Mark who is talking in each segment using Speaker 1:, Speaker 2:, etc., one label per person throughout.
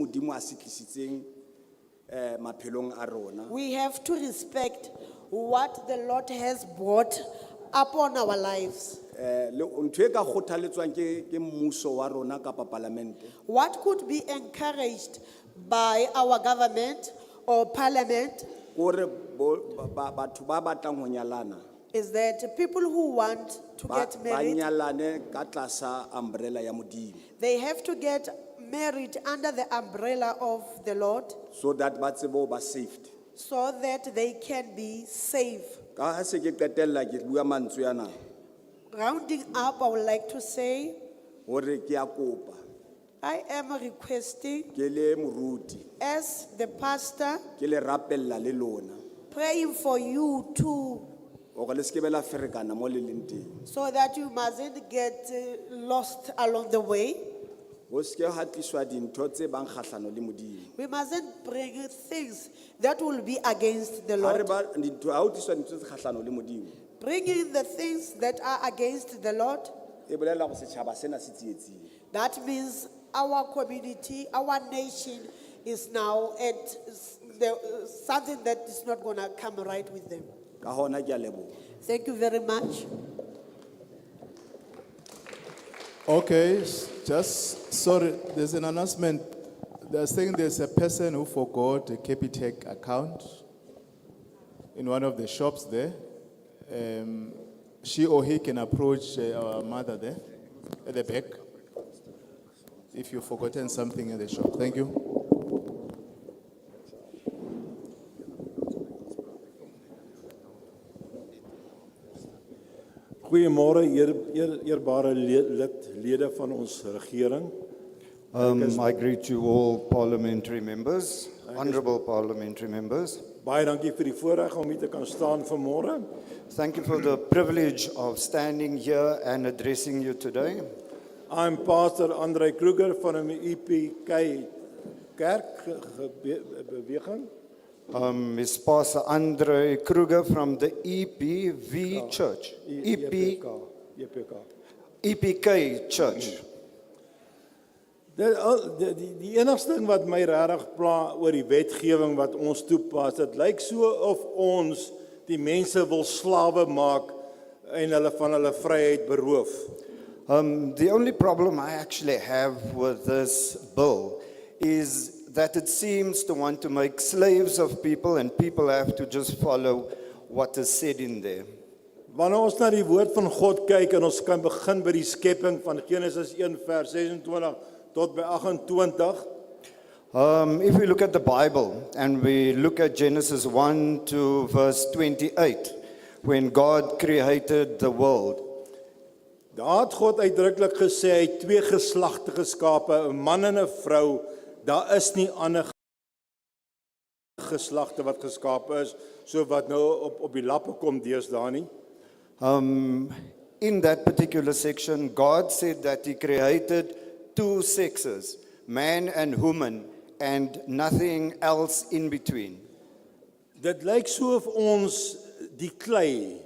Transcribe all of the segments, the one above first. Speaker 1: wa se tlisitseng eh maphelong a rona
Speaker 2: We have to respect what the Lord has brought upon our lives.
Speaker 1: eh le ntwe ka kgothaletswang ke ke mmuso wa rona kapa parlamente
Speaker 2: What could be encouraged by our government or parliament
Speaker 1: gore batho ba batlang ho nyalana
Speaker 2: is that people who want to
Speaker 1: ba
Speaker 2: get
Speaker 1: ba
Speaker 2: married,
Speaker 1: nyalane ka tlasa umbrella ya modimo
Speaker 2: they have to get married under the umbrella of the Lord
Speaker 1: so that ba tsebe ho ba saved
Speaker 2: so that they can be safe.
Speaker 1: ka ha se ke qetella ke bua mantswe yana
Speaker 2: Rounding up, I would like to say
Speaker 1: hore ke a kopa
Speaker 2: I am requesting,
Speaker 1: ke le moruti
Speaker 2: as the pastor,
Speaker 1: ke le rapella le lona
Speaker 2: praying for you too,
Speaker 1: gore le sekebe la ferekana mo le leng teng
Speaker 2: so that you mustn't get uh, lost along the way.
Speaker 1: go seke ga tliswa dintho tse bang kgatlhano le modimo
Speaker 2: We mustn't bring things that will be against the
Speaker 1: ga re
Speaker 2: Lord.
Speaker 1: ba dintho ga o tliswa dintho tse kgatlhano le modimo
Speaker 2: Bringing the things that are against the Lord,
Speaker 1: e bolela go setšhaba sena se tsietsing
Speaker 2: that means our community, our nation is now at s- the, something that is not going to come right with them.
Speaker 1: ka gona ke a leboga
Speaker 2: Thank you very much.
Speaker 3: Okay, s- just, sorry, there's an announcement. They're saying there's a person who forgot a Capitec account in one of the shops there. Um, she or he can approach uh, our mother there at the back if you've forgotten something at the shop. Thank you.
Speaker 4: Goeiemôre eer, eer, eerbare le- lid lede van ons regering.
Speaker 5: Um, I greet you all parliamentary members, honourable parliamentary members.
Speaker 4: Baie dankie vir die voorreg om hier te kan staan vanmôre.
Speaker 5: Thank you for the privilege of standing here and addressing you today.
Speaker 4: I'm pastor Andre Kruger van die EPK Kerk ge- gebe- beweging.
Speaker 5: Um, is Pastor Andre Kruger from the EPV Church,
Speaker 4: E-
Speaker 5: EP,
Speaker 4: EPK.
Speaker 5: EPK Church.
Speaker 4: Dit al- die die- die enigste ding wat my regtig pla oor die wetgewing wat ons toepas, dit lyk so of ons die mense wil slawe maak en hulle van hulle vryheid beroof.
Speaker 5: Um, the only problem I actually have with this bill is that it seems to want to make slaves of people and people have to just follow what is said in there.
Speaker 4: Wanneer ons na die woord van God kyk en ons kan begin by die skepping van Genesis 1 vers 26 tot by 28
Speaker 5: Um, if we look at the Bible and we look at Genesis 1 to verse 28, when God created the world,
Speaker 4: daar het God uitdruklik gesê hy het twee geslagte geskape 'n man en 'n vrou daar is nie ander geslagte wat geskape is so wat nou op op die lappe kom deesdae nie
Speaker 5: um, in that particular section, God said that He created two sexes, man and woman, and nothing else in between.
Speaker 4: Dit lyk so of ons die klei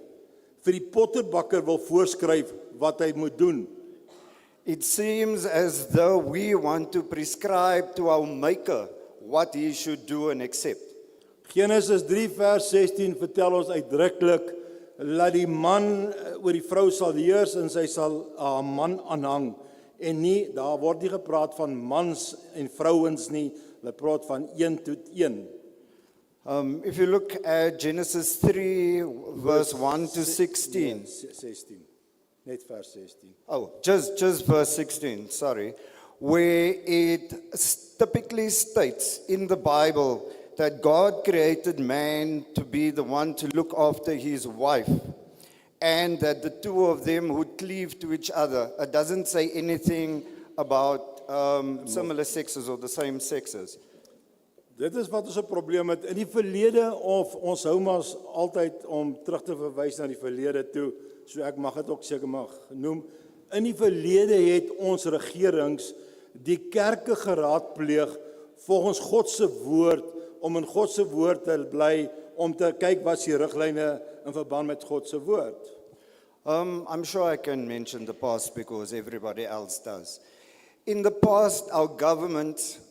Speaker 4: vir die potterbakker wil voorskryf wat hy moet doen
Speaker 5: It seems as though we want to prescribe to our Maker what He should do and accept.
Speaker 4: Genesis 3 vers 16 vertel ons uitdruklik dat die man eh, oor die vrou sal heers en sy sal haar man aanhang en nie daar word nie gepraat van mans en vrouens nie hulle praat van een tot een
Speaker 5: Um, if you look at Genesis 3, verse 1 to 16.
Speaker 4: Nee, 16 net vers 16
Speaker 5: Oh, just, just verse 16, sorry. Where it s- typically states in the Bible that God created man to be the one to look after his wife and that the two of them would cleave to each other. It doesn't say anything about um, similar sexes or the same sexes.
Speaker 4: Dit is wat ons 'n probleem het in die verlede of ons hou maar altyd om terug te verwys na die verlede toe. So ek mag dit ook seker mag noem. In die verlede het ons regerings die kerke geraadpleeg volgens God se woord om in God se woord te bly om te kyk wat se riglyne in verband met God se woord.
Speaker 5: Um, I'm sure I can mention the past because everybody else does. In the past, our government